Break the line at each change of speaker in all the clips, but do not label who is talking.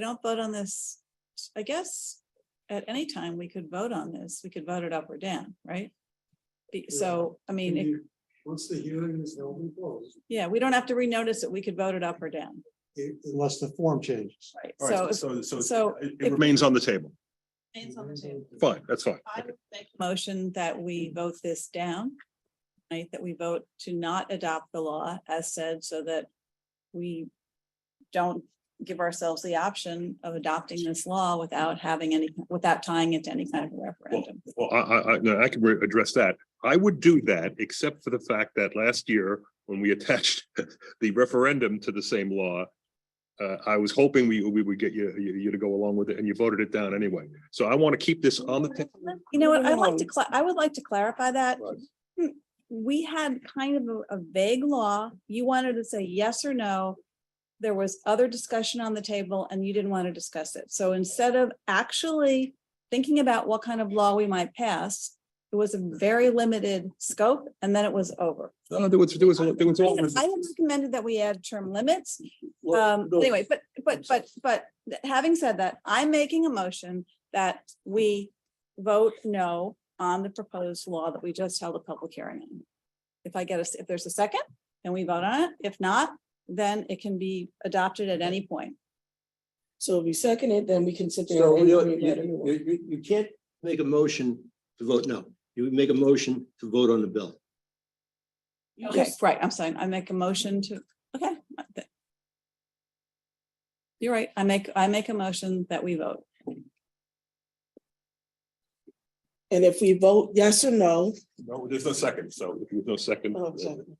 we don't vote on this, I guess, at any time, we could vote on this. We could vote it up or down, right? Be- So, I mean, it-
You- Once the hearing is held and closed.
yeah, we don't have to renotice it. We could vote it up or down,
it- Unless the form changes.
right?
All right,
So.
so,
so
so, so it
if-
it remains on the table.
it's on the table.
Fine, that's fine.
I would make a motion that we vote this down. Right, that we vote to not adopt the law as said, so that we don't give ourselves the option of adopting this law without having any, without tying it to any kind of referendum.
Well, I, I, I, no, I can re- address that. I would do that, except for the fact that last year, when we attached the referendum to the same law, uh, I was hoping we, we would get you, you, you to go along with it, and you voted it down anyway. So I want to keep this on the table.
You know what, I'd like to, cla- I would like to clarify that.
Right.
Hmm, We had kind of a- a vague law. You wanted to say yes or no. There was other discussion on the table and you didn't want to discuss it. So instead of actually thinking about what kind of law we might pass, it was a very limited scope and then it was over.
No, there was, there was, there was.
I
all-
had I had recommended that we add term limits.
Well,
Um,
no,
anyway, but, but,
I'm sorry.
but, but th- having said that, I'm making a motion that we vote no on the proposed law that we just held a public hearing on. If I get a, s- if there's a second, then we vote on it. If not, then it can be adopted at any point.
So if you second it, then we can sit there
So
and
you,
agree that
you,
anyway.
you, you can't make a motion to vote no. You would make a motion to vote on the bill.
Okay, right, I'm sorry, I make a motion to, okay. I thi- You're right, I make, I make a motion that we vote.
And if we vote yes or no.
No, there's no second, so if there's no second. uh,
oh, second.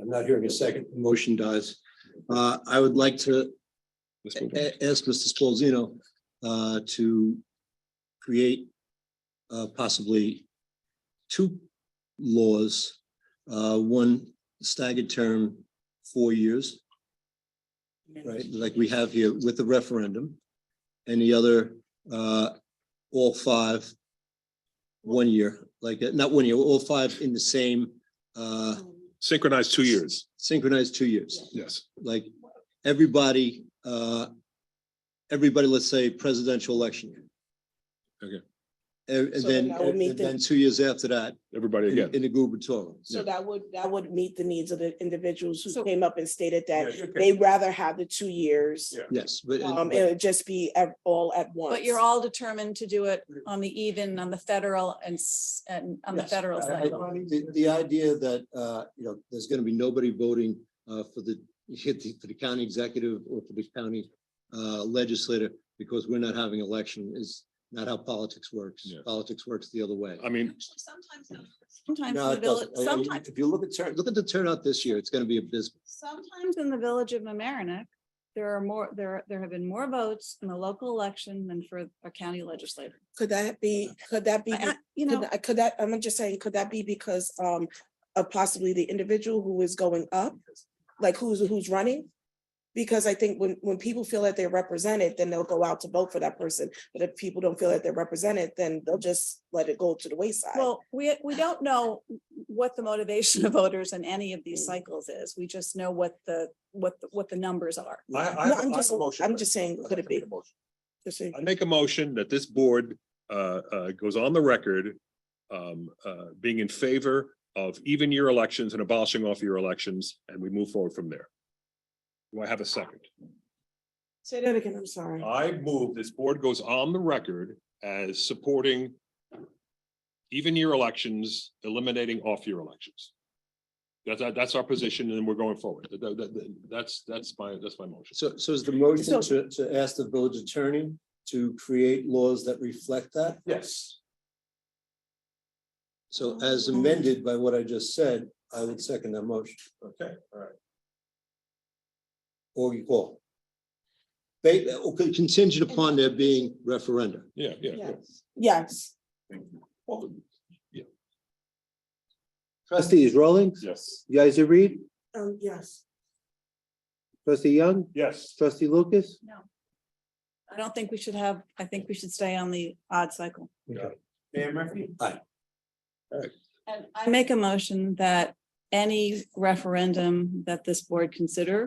I'm not hearing a second. The Motion dies. Uh, I would like to
let's
a-
move on.
a- ask Mr. Spolzino, uh, to create, uh, possibly two laws, uh, one staggered term, four years, right, like we have here with the referendum. And the other, uh, all five, one year, like, uh, not one year, all five in the same, uh,
Um,
Synchronized two years,
synchronized two years
yes.
like everybody, uh, everybody, let's say presidential election. year.
Okay.
And and
So then
then,
that would meet
and
the-
then two years after that,
Everybody
in
again.
in the gubernatorial.
So that would, that would meet the needs of the individuals
So-
who came up and stated that
Yeah, okay.
they'd rather have the two years.
Yeah.
Yes, but
Um,
but
it would just be at- all at once.
But you're all determined to do it on the even, on the federal and, s- and on the
Yes,
federal
I- I-
side.
the, the idea that, uh, you know, there's gonna be nobody voting, uh, for the, for the county executive or for the county, uh, legislator because we're not having election is not how politics works.
Yeah.
Politics works the other way.
I mean,
Actually, sometimes, the- sometimes
No,
in the
it doesn't.
village,
I- I mean,
sometimes,
If you look at, turn- look at the turnout this year, it's gonna be abysmal.
sometimes in the village of Mamaroneck, there are more, there, are- there have been more votes in the local election than for a county legislator.
Could that be, could that be,
I- I- You
could
know,
that- could that, I'm just saying, could that be because, um, of possibly the individual who is going up? Like who's, who's running? Because I think when, when people feel that they're represented, then they'll go out to vote for that person. But if people don't feel that they're represented, then they'll just let it go to the wayside.
well, we, we don't know what the motivation of voters in any of
Mm.
these cycles is. We just know what the, what, the- what the numbers are.
I, I
No,
have a-
I'm
I have
just,
a motion.
I'm just saying, could it be? Just saying.
I make a motion that this board uh, uh, goes on the record um, uh, being in favor of even year elections and abolishing off year elections, and we move forward from there. Do I have a second?
Say that again, I'm sorry.
I move this board goes on the record as supporting even year elections, eliminating off year elections. That's, that's our position, and we're going forward. That- that- that- that's, that's my, that's my motion.
So, so is the motion
So-
to, to ask the village attorney to create laws that reflect that?
Yes.
So as amended by what I just said, I would second that motion.
Okay, all right.
Or you call. Ba- okay, contingent upon there being referenda.
Yeah, yeah, yeah.
Yes,
Well,
Trustees Rollins,
Yes.
Yizer Reed,
um, yes.
trustee Young,
Yes.
trustee Lucas.
I don't think we should have, I think we should stay on the odd cycle.
Yeah.
Mayor Murphy?
And I make a motion that any referendum that this board consider